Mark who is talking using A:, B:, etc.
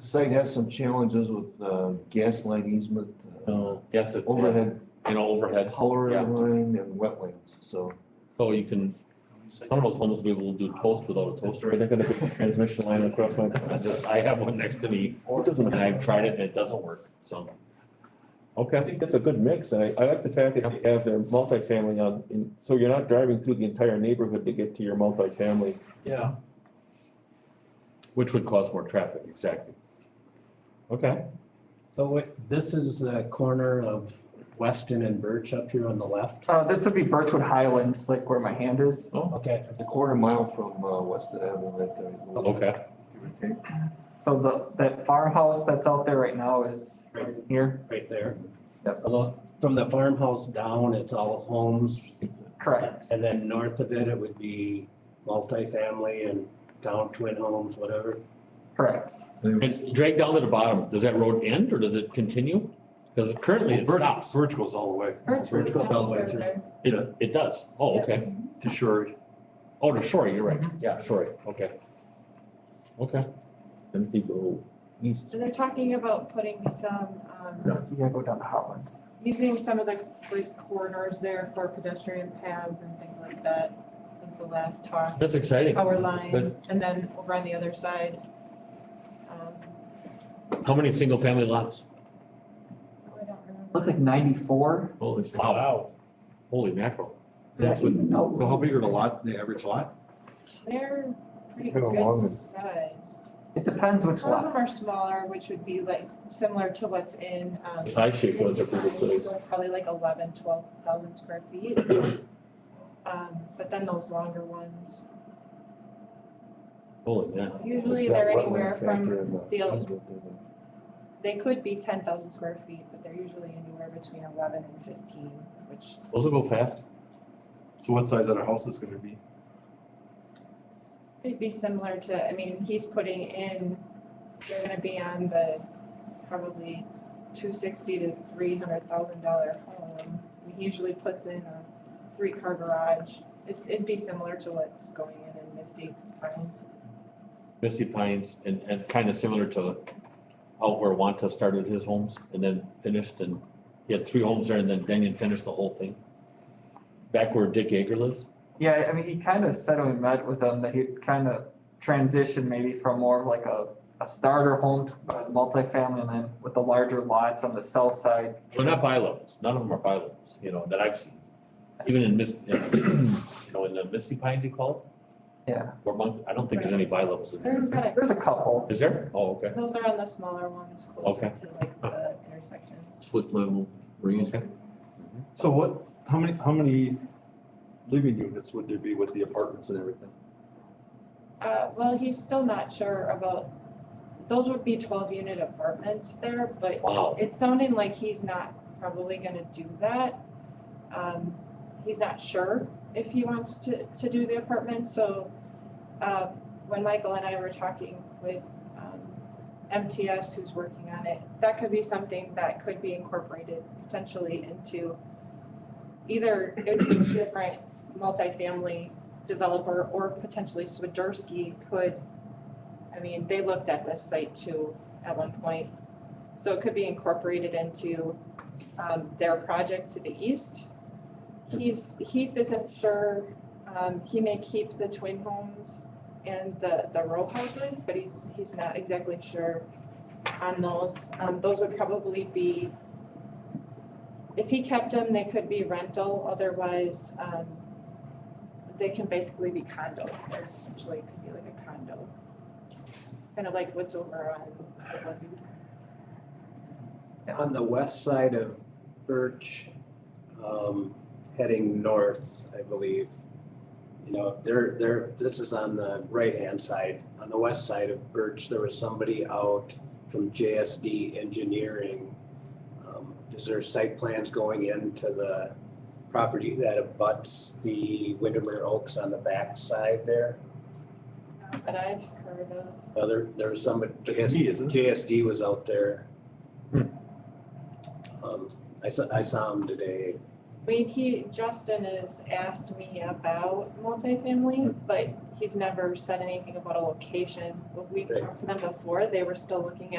A: site has some challenges with uh, gas line easement, uh,
B: No, yes, it, you
A: overhead
B: know, Oh. overhead,
A: power
B: Yeah.
A: line and wetlands, so.
B: so you can, some of those homeless people will do toast without a
C: That's
B: toaster.
C: right, I gotta put the transmission line across my.
B: I just, I have one next to me
C: It doesn't
B: and I've
C: matter.
B: tried it and it doesn't work, so.
C: I
B: Okay,
C: think that's a good mix, and I, I like the fact that they have their multifamily on, in- so you're not driving through the entire neighborhood to get to your multifamily.
B: yeah. Which would cause more traffic, exactly. Okay,
D: So it- this is the corner of Weston and Birch up here on the left.
E: Uh, this would be Birchwood Highlands, like where my hand is.
D: Okay,
A: A quarter mile from uh, Weston Avenue right there.
B: okay,
E: So the, that farmhouse that's out there right now is right here.
D: right there.
E: Yes.
D: Although from the farmhouse down, it's all homes.
E: Correct.
D: And then north of it, it would be multifamily and down twin homes, whatever.
E: Correct.
A: There's-
B: and drag down to the bottom, does that road end or does it continue? Cause currently it
F: Birch,
B: stops,
F: Birch goes all the way
D: Birch goes all the way through.
B: it, it does, oh, okay,
F: to Shore.
B: oh, to Shorey, you're right, yeah, Shorey, okay. Okay,
C: And they go east.
G: And they're talking about putting some,
C: No.
G: um,
E: You gotta go down to Highlands.
G: using some of the like corridors there for pedestrian paths and things like that, was the last talk.
B: that's exciting.
G: Power
B: Good.
G: line, and then over on the other side. um,
B: How many single family lots?
G: I don't remember.
E: Looks like ninety-four.
B: Holy Wow. Holy mackerel.
F: That's what,
E: No.
F: so how big are the lot, the average lot?
G: They're pretty
A: They're long.
G: good sized.
E: It depends which
G: Some of them
E: lot.
G: are smaller, which would be like similar to what's in, um.
B: I shaped ones are pretty good size.
G: So Probably like eleven, twelve thousand square feet. Um, but then those longer ones,
B: Holy yeah.
G: usually
A: It's that
G: they're
A: wetland
G: anywhere
A: factor
G: from,
A: in
G: the-
A: the-
G: they could be ten thousand square feet, but they're usually anywhere between eleven and fifteen, which
B: Those will go fast.
F: So what size are the houses gonna be?
G: It'd be similar to, I mean, he's putting in, they're gonna be on the probably two sixty to three hundred thousand dollar home. And He usually puts in a three car garage. It, it'd be similar to what's going in in Misty Pines.
B: Misty Pines and, and kind of similar to out where Wanta started his homes and then finished and he had three homes there and then Denyon finished the whole thing. Back where Dick Yeager lives.
E: Yeah, I mean, he kinda said when we met with him that he'd kinda transition maybe from more of like a, a starter home to a multifamily and then with the larger lots on the south side.
B: Well, not by levels. None of them are by levels, you know, that I've seen. Even in Mis, in, you know, in the Misty Pines you call it?
E: Yeah.
B: Or Monk, I don't think there's any by levels in there.
G: There's kind
E: There's a couple.
B: Is there? Oh, okay.
G: of, those are on the smaller ones
B: Okay.
G: closer to like the intersections.
C: Foot level,
B: Okay.
F: So what, how many, how many living units would there be with the apartments and everything?
G: Uh, well, he's still not sure about, those would be twelve unit apartments there, but
B: Wow.
G: It's sounding like he's not probably gonna do that. Um, he's not sure if he wants to, to do the apartment, so, uh, when Michael and I were talking with, um, MTS who's working on it, that could be something that could be incorporated potentially into either it would be a different multifamily developer or potentially Swiderski could, I mean, they looked at this site too at one point. So it could be incorporated into um their project to the east. He's, Heath isn't sure, um he may keep the twin homes and the the row houses, but he's he's not exactly sure on those. Um those would probably be if he kept them, they could be rental, otherwise um they can basically be condo, they're essentially could be like a condo. Kind of like what's over on Woodland
D: On the west side of Birch, um, heading north, I believe. You know, there, there, this is on the right-hand side. On the west side of Birch, there was somebody out from JSD Engineering. Um, Is there site plans going into the property that abuts the Windermere Oaks on the back side there?
G: But I've heard of,
D: Uh, There, there was somebody,
F: That's me, isn't it?
D: JSD was out there.
B: Hmm.
D: Um, I saw, I saw him today.
G: I mean, he, Justin has asked me about multifamily, but he's never said anything about a location. When we talked to them before, they were still looking at